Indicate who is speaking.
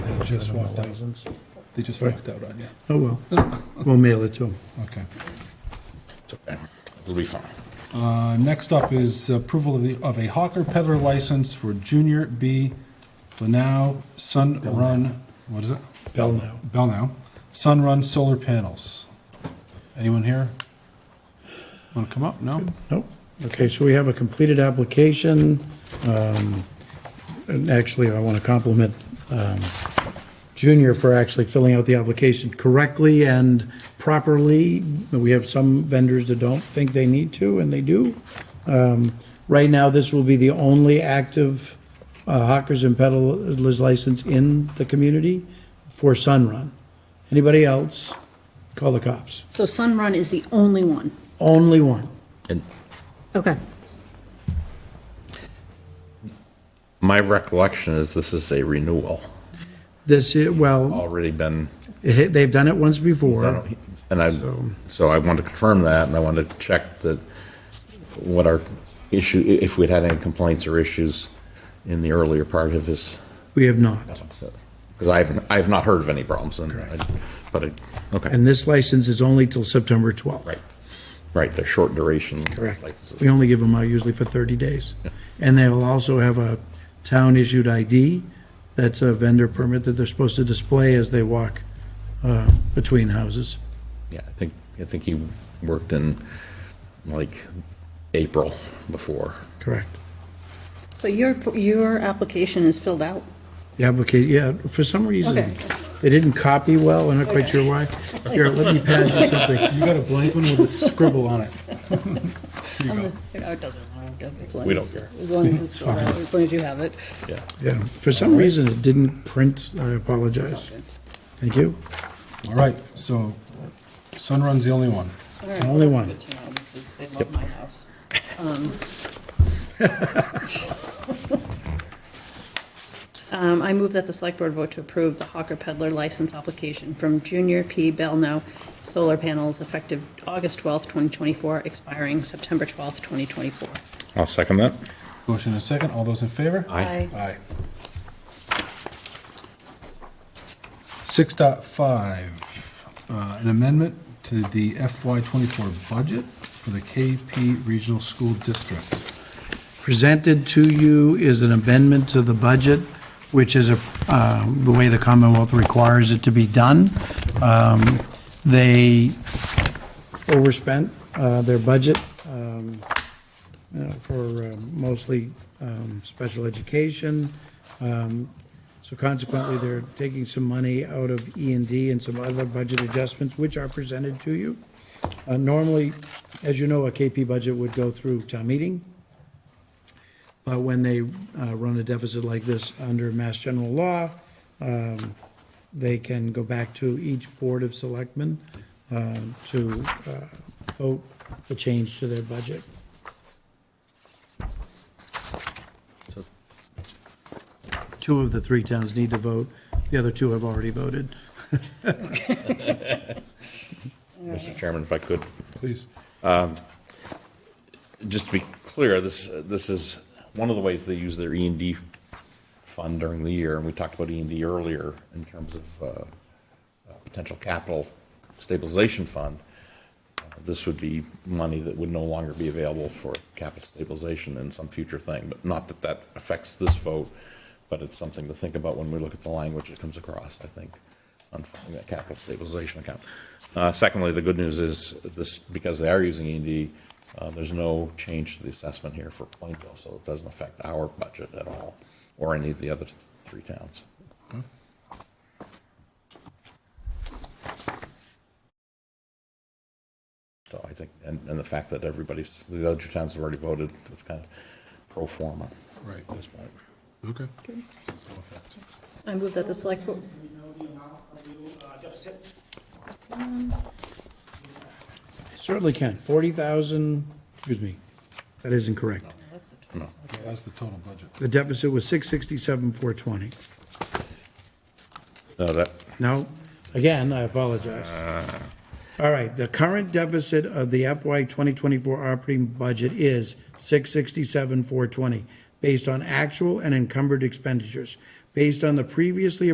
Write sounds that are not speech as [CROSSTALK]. Speaker 1: They just walked out.
Speaker 2: Thousands.
Speaker 1: They just walked out on you.
Speaker 2: Oh, well, we'll mail it to them.
Speaker 1: Okay.
Speaker 3: It's okay. It'll be fine.
Speaker 1: Uh, Next up is approval of the, of a hawker peddler license for Junior B. Lanao Sun Run, what is it?
Speaker 2: Bell now.
Speaker 1: Bell now. Sun Run Solar Panels. Anyone here? Want to come up? No?
Speaker 2: Nope. Okay, so we have a completed application. Um, And actually, I want to compliment um, Junior for actually filling out the application correctly and properly. We have some vendors that don't think they need to, and they do. Um, Right now, this will be the only active uh, hawkers and peddlers license in the community for Sunrun. Anybody else, call the cops.
Speaker 4: So Sunrun is the only one.
Speaker 2: Only one.
Speaker 3: And
Speaker 4: Okay.
Speaker 3: my recollection is this is a renewal,
Speaker 2: This, is well.
Speaker 3: already been,
Speaker 2: It- They've done it once before.
Speaker 3: and I, so I want to confirm that, and I want to check that what our issue, i- if we'd had any complaints or issues in the earlier part of his,
Speaker 2: We have not.
Speaker 3: because I haven't, I have not heard of any problems, and, I- but, it- okay,
Speaker 2: And this license is only till September 12th.
Speaker 3: right, right, the short duration.
Speaker 2: Correct.
Speaker 3: licenses.
Speaker 2: We only give them out usually for 30 days. And they'll also have a town-issued ID. That's a vendor permit that they're supposed to display as they walk uh, between houses.
Speaker 3: Yeah, I think, I think he worked in, like, April before.
Speaker 2: Correct.
Speaker 4: So your, your application is filled out?
Speaker 2: The applicant, yeah, for some reason,
Speaker 4: Okay.
Speaker 2: they didn't copy well. I'm not quite sure why. Here, let me pass you something.
Speaker 1: You got a blank one with a scribble on it. Here you go.
Speaker 4: No, it doesn't.
Speaker 3: We don't care.
Speaker 4: As long as it's filled out, as long as you have it.
Speaker 3: Yeah.
Speaker 2: Yeah, for some reason, it didn't print. I apologize. Thank you.
Speaker 1: All right, so Sun Run's the only one.
Speaker 2: The only one.
Speaker 5: Good to know, because they love my house.
Speaker 4: [LAUGHS] Um, I move that the select board vote to approve the hawker peddler license application from Junior P. Belno Solar Panels effective August 12th, 2024, expiring September 12th, 2024.
Speaker 3: I'll second that.
Speaker 1: Motion and a second. All those in favor?
Speaker 3: Aye.
Speaker 1: Aye. Six dot five, uh, an amendment to the FY twenty-four budget for the KP Regional School District.
Speaker 2: presented to you is an amendment to the budget, which is a, uh, the way the Commonwealth requires it to be done. Um, They overspent uh, their budget um, you know, for uh, mostly um, special education. Um, So consequently, they're taking some money out of E and D and some other budget adjustments, which are presented to you. Uh, Normally, as you know, a KP budget would go through town meeting. But when they uh, run a deficit like this under Mass General Law, um, they can go back to each Board of Selectmen um, to uh, vote the change to their budget. Two of the three towns need to vote. The other two have already voted.
Speaker 3: Mr. Chairman, if I could,
Speaker 1: Please.
Speaker 3: just to be clear, this, this is one of the ways they use their E and D fund during the year, and we talked about E and D earlier in terms of, uh, uh, potential capital stabilization fund. Uh, This would be money that would no longer be available for capital stabilization in some future thing, but not that that affects this vote, but it's something to think about when we look at the language that comes across, I think, on funding that capital stabilization account. Uh, Secondly, the good news is this, because they are using E and D, uh, there's no change to the assessment here for Plainville, so it doesn't affect our budget at all, or any of the other three towns. So I think, and, and the fact that everybody's, the other towns have already voted, it's kind of pro forma
Speaker 1: Right.
Speaker 3: at this point.
Speaker 1: Okay.
Speaker 4: I move that the select board,
Speaker 2: Certainly can. 40,000, excuse me, that isn't correct.
Speaker 1: That's the total budget.
Speaker 2: The deficit was 667, 420.
Speaker 3: No, that,
Speaker 2: No, again, I apologize. All right, the current deficit of the FY 2024 operating budget is 667,420, based on actual and encumbered expenditures. Based on the previously